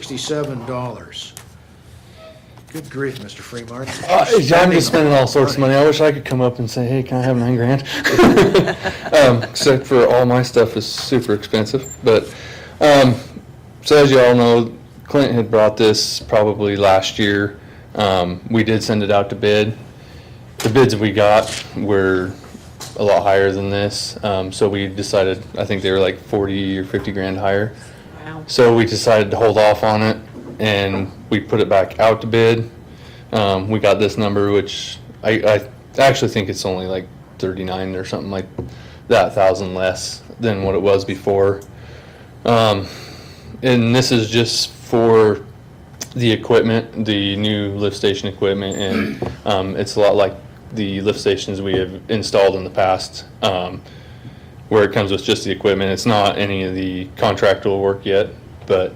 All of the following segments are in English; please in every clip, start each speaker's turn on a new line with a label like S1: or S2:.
S1: $15,867. Good grief, Mr. Fremont.
S2: Uh, I'm just spending all sorts of money. I wish I could come up and say, hey, can I have nine grand? um, except for all my stuff is super expensive. But um, so as you all know, Clint had brought this probably last year. Um, we did send it out to bid. The bids we got were a lot higher than this. Um, so we decided, I think they were like 40 or 50 grand higher.
S3: Wow.
S2: So we decided to hold off on it and we put it back out to bid. Um, we got this number, which I, I actually think it's only like 39 or something like that thousand less than what it was before. Um, and this is just for the equipment, the new lift station equipment, and um, it's a lot like the lift stations we have installed in the past. Um, where it comes with just the equipment. It's not any of the contractual work yet, but,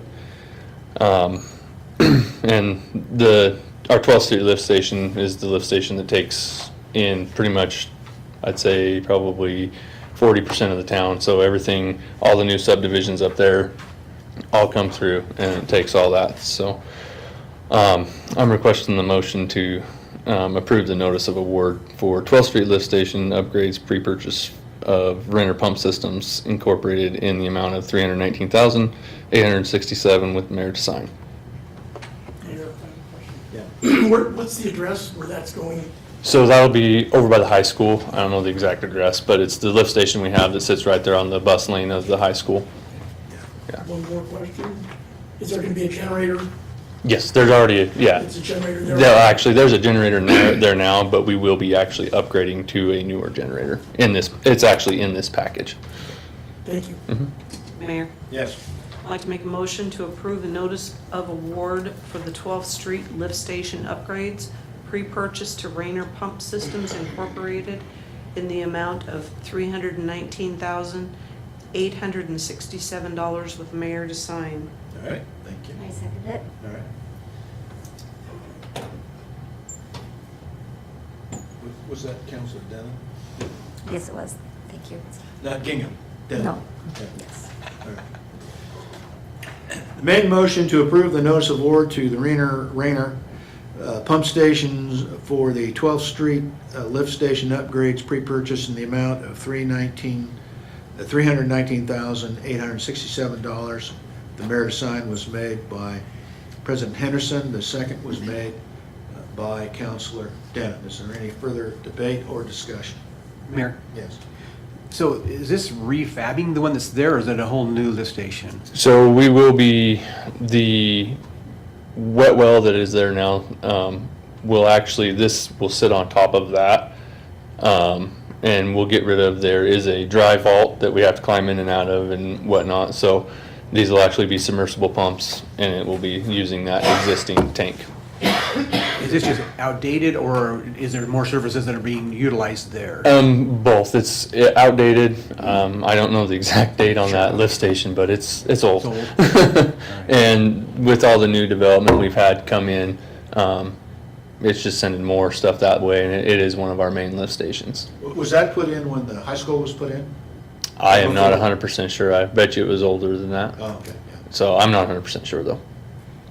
S2: um, and the, our 12th Street lift station is the lift station that takes in pretty much, I'd say probably 40% of the town. So everything, all the new subdivisions up there all come through and it takes all that. So, um, I'm requesting the motion to, um, approve the notice of award for 12th Street Lift Station upgrades pre-purchase of Renner Pump Systems Incorporated in the amount of 319,867 with mayor to sign.
S4: Where, what's the address where that's going?
S2: So that'll be over by the high school. I don't know the exact address, but it's the lift station we have that sits right there on the bus lane of the high school.
S4: One more question. Is there gonna be a generator?
S2: Yes, there's already, a- yeah.
S4: It's a generator there?
S2: No, actually, there's a generator there there now, but we will be actually upgrading to a newer generator in this, it's actually in this package.
S4: Thank you.
S3: Mayor,
S1: Yes.
S3: I'd like to make a motion to approve the notice of award for the 12th Street Lift Station upgrades, pre-purchase to Rayner Pump Systems Incorporated in the amount of $319,867 with mayor to sign.
S1: All right, thank you.
S5: I second it.
S1: All right. Was that Counselor Denham?
S5: Yes, it was. Thank you.
S1: Not Gingham? Denham.
S5: No,
S1: Okay.
S5: yes.
S1: Made motion to approve the notice of award to the Rainer, Rainer uh, Pump Stations for the 12th Street uh, Lift Station upgrades pre-purchase in the amount of 319, uh, $319,867. The mayor sign was made by President Henderson, the second was made uh, by Counselor Denham. Is there any further debate or discussion?
S6: Mayor,
S1: Yes.
S6: so is this refabbing the one that's there, or is it a whole new lift station?
S2: So we will be, the wet well that is there now, um, will actually, this will sit on top of that. Um, and we'll get rid of, there is a dry vault that we have to climb in and out of and whatnot, so these will actually be submersible pumps and it will be using that existing tank.
S6: Is this just outdated, or is there more services that are being utilized there?
S2: Um, both, it's outdated, um, I don't know the exact date on that lift station, but it's, it's old.
S6: It's old.
S2: And with all the new development we've had come in, um, it's just sending more stuff that way, and it- it is one of our main lift stations.
S1: Was that put in when the high school was put in?
S2: I am not hundred percent sure, I bet you it was older than that,
S1: Oh, okay, yeah.
S2: so I'm not hundred percent sure though.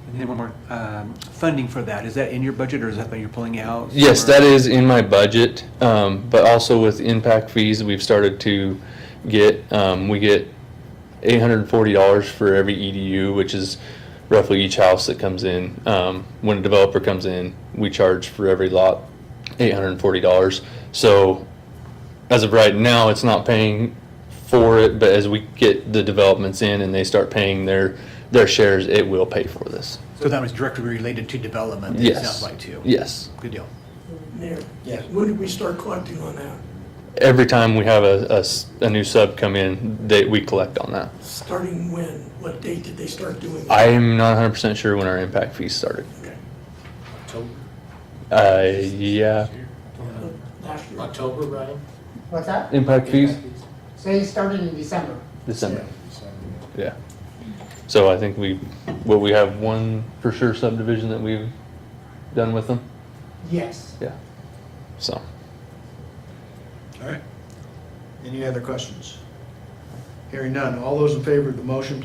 S6: And then one more, um, funding for that, is that in your budget, or is that that you're pulling out?
S2: Yes, that is in my budget, um, but also with impact fees, we've started to get, um, we get eight hundred and forty dollars for every EDU, which is roughly each house that comes in. Um, when a developer comes in, we charge for every lot eight hundred and forty dollars. So as of right now, it's not paying for it, but as we get the developments in and they start paying their, their shares, it will pay for this.
S6: So that was directly related to development, it
S2: Yes.
S6: sounds like, too?
S2: Yes.
S6: Good deal.
S4: Mayor?
S1: Yes.
S4: When did we start collecting on that?
S2: every time we have a, a s- a new sub come in, they, we collect on that.
S4: Starting when? What date did they start doing that?
S2: I'm not hundred percent sure when our impact fees started.
S4: Okay.
S2: Uh, yeah.
S4: Uh, Last year.
S7: October, Brian?
S8: What's that?
S2: Impact fees?
S8: Say it started in December.
S2: December. Yeah. So I think we, well, we have one for sure subdivision that we've done with them,
S8: Yes.
S2: yeah. So,
S1: All right. Any other questions? Hearing none. All those in favor of the motion,